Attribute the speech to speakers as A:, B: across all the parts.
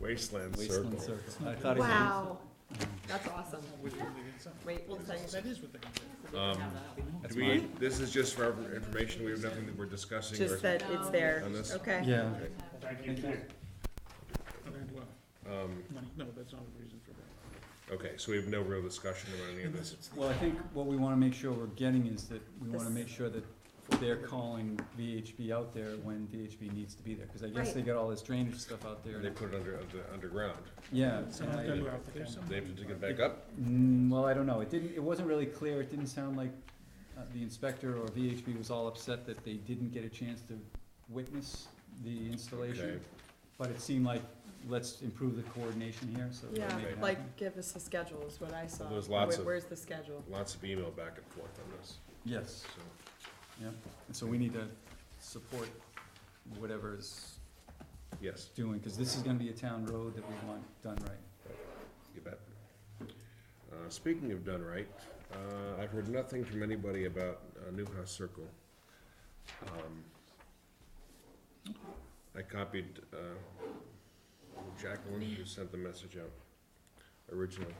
A: Wasteland
B: Wasteland
A: Circle.
B: Circle. I thought he meant-
C: Wow, that's awesome. Wait, we'll tell you.
D: That is what they can do.
B: That's
A: Um, Do we,
B: mine.
A: this is just for our information, we have nothing that we're discussing or
C: Just that it's there,
A: on this?
C: okay.
B: Yeah.
D: Okay, well,
A: Um,
D: money, no, that's not a reason for that.
A: Okay, so we have no real discussion about any of this.
B: Well, I think what we wanna make sure we're getting is that we wanna
C: This-
B: make sure that they're calling VHB out there when VHB needs to be there, cause I guess
C: Right.
B: they got all this drainage stuff out there.
A: They put it under, under- underground.
B: Yeah. and
D: Some of
B: I-
D: them are out there, some-
A: They have to dig it back up?
B: Mm, well, I don't know, it didn't, it wasn't really clear, it didn't sound like, uh, the inspector or VHB was all upset that they didn't get a chance to witness the installation.
A: Okay.
B: But it seemed like, let's improve the coordination here, so. we
C: Yeah,
B: make it happen.
C: like, give us a schedule is what I saw.
A: there's lots
C: Where-
A: of-
C: Where's the schedule?
A: Lots of email back and forth on this,
B: Yes,
A: so.
B: and so we need to support whatever is
A: Yes,
B: doing, cause this is gonna be a town road that we want done right.
A: you bet. Uh, speaking of done right, uh, I've heard nothing from anybody about, uh, Newhouse Circle. Um, I copied, uh, Jacqueline, who sent the message out originally.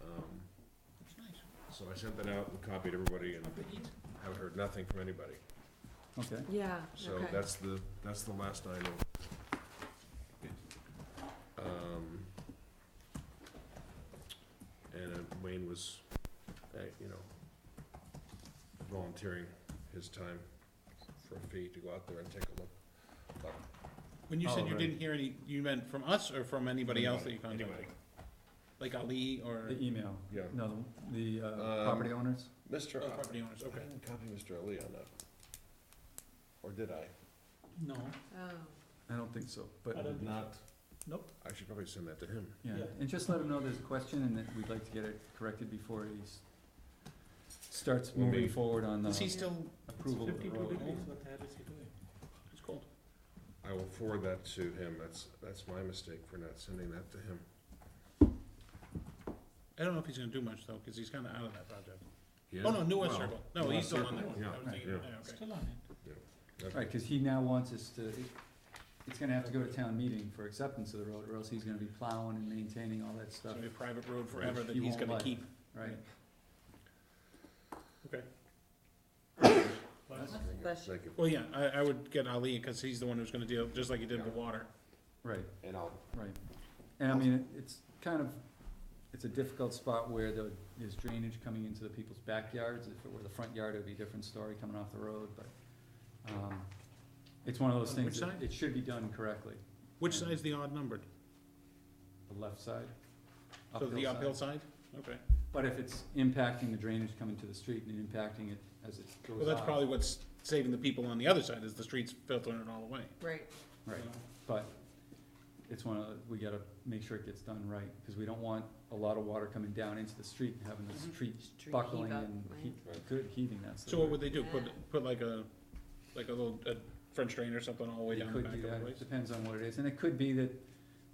A: Um,
D: That's nice.
A: So I sent that out and copied everybody and haven't heard nothing from anybody.
B: Okay,
C: Yeah,
A: So
C: okay.
A: that's the, that's the last I know. Um, And uh, Wayne was, uh, you know, volunteering his time for a fee to go out there and take a look.
D: When you
B: Oh,
D: said you
B: right.
D: didn't hear any, you meant from us or from anybody else that you contacted?
A: Anybody.
D: Like Ali or
B: the email,
A: Yeah.
B: no, the, the, uh,
A: Um,
B: property owners?
A: Mr.
D: other
A: I-
D: property owners,
A: uh, I
D: Oh, okay.
A: didn't copy Mr. Ali on that. Or did I?
D: No,
C: Oh.
B: I don't think so, but.
D: I don't think
A: Not.
D: Nope.
A: I should probably send that to him.
B: Yeah,
D: Yeah.
B: and just let him know there's a question and that we'd like to get it corrected before he s- starts
A: Will
B: moving
A: be-
B: forward on
D: is he
B: the
D: still?
B: approval of the road.
D: what the heck is he doing? It's cold.
A: I will forward that to him, that's, that's my mistake for not sending that to him.
D: I don't know if he's gonna do much though, cause he's kinda out of that project.
A: He
D: Oh,
A: is?
D: no, New West
A: Well,
D: Circle, no,
A: New
D: he's
A: West
D: still on
A: Circle,
D: that one,
A: yeah,
D: I was thinking,
A: yeah.
D: yeah, okay.
A: okay.
B: Right, cause he now wants us to, it- it's gonna have to go to town meeting for acceptance of the road, or else he's gonna be plowing and maintaining all that
D: It's
B: stuff,
D: gonna be a private road forever that
B: He
D: he's
B: won't
D: gonna
B: like.
D: keep.
B: right?
C: Bless you.
A: Thank you.
D: Well, yeah, I, I would get Ali, cause he's the one who's gonna deal, just like he did with water.
B: Right,
A: And I'll,
B: right. And I mean, it- it's kind of, it's a difficult spot where there is drainage coming into the people's backyards. If it were the front yard, it'd be a different story coming off the road, but, um, it's one of those
D: On
B: things
D: which
B: that
D: side?
B: it should be done correctly.
D: Which
B: Yeah.
D: side's the odd numbered?
B: The left side?
D: So the
B: side.
D: uphill side? Okay,
B: But if it's impacting the drainage coming to the street and impacting it as it goes
D: well, that's
B: out,
D: probably what's saving the people on the other side, is the streets filtering it all away.
C: Right,
B: Right, but it's one of, the- we gotta make sure it gets done right, cause we don't want a lot of water coming down into the street and having the
D: Mhm.
B: street
C: Street
B: buckling
C: heave up,
B: and
C: right.
B: heat, good heaving, that's the
D: So what
B: word.
D: would they do, put,
C: Yeah.
D: put like a, like a little, a French drain or something all the way
B: They
D: down the
B: could
D: back
B: do
D: of the
B: that, it
D: place?
B: depends on what it is, and it could be that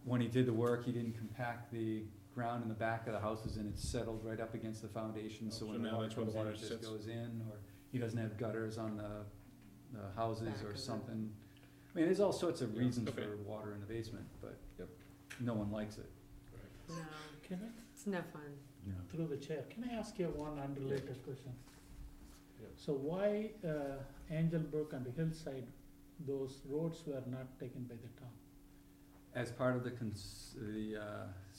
B: when he did the work, he didn't compact the ground in the back of the houses and it's settled right up against the foundation, so
D: Oh, So
B: when the
D: now
B: water
D: that's where the
B: comes in,
D: water
B: it just
D: sits.
B: goes in, or he doesn't have gutters on the, the houses
C: Back of
B: or
C: it.
B: something. I mean, there's all sorts of
A: Yeah,
B: reasons
D: okay.
B: for water in the basement, but
A: Yep.
B: no one likes it.
C: no,
E: Can
C: it's no fun.
E: I, through the chair, can I ask you one unrelated question?
A: Yeah.
E: So why, uh, Angel Brook and Hillside, those roads were not taken by the town,
B: As part of the cons- the, uh,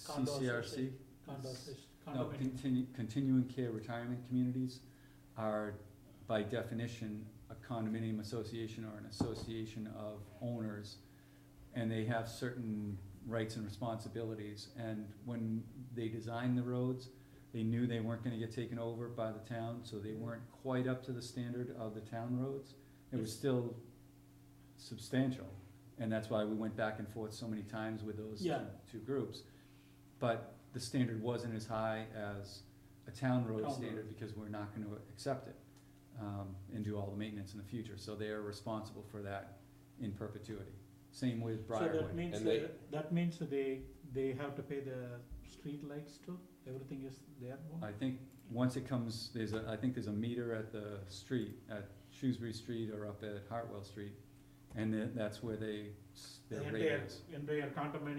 E: Condo
B: CCRC,
E: condos,
B: no,
E: condominium?
B: continu- continuing care retirement communities are by definition a condominium association or an association of owners. And they have certain rights and responsibilities, and when they designed the roads, they knew they weren't gonna get taken over by the town, so they weren't quite up to the standard of the town roads. It was still substantial, and that's why we went back and forth so many times with those
E: Yeah.
B: two groups. But the standard wasn't as high as a town road
E: Town
B: standard, because we're not gonna accept it, um, and do all the maintenance in the future, so they are responsible for that in perpetuity. Same with
E: So
B: Briarwood.
E: that means,
A: And they-
E: uh, that means they, they have to pay the street lights too, everything is their own?
B: I think, once it comes, there's a, I think there's a meter at the street, at Shrewsbury Street or up at Hartwell Street, and then that's where they, s- their rate is.
E: Entire, entire condominium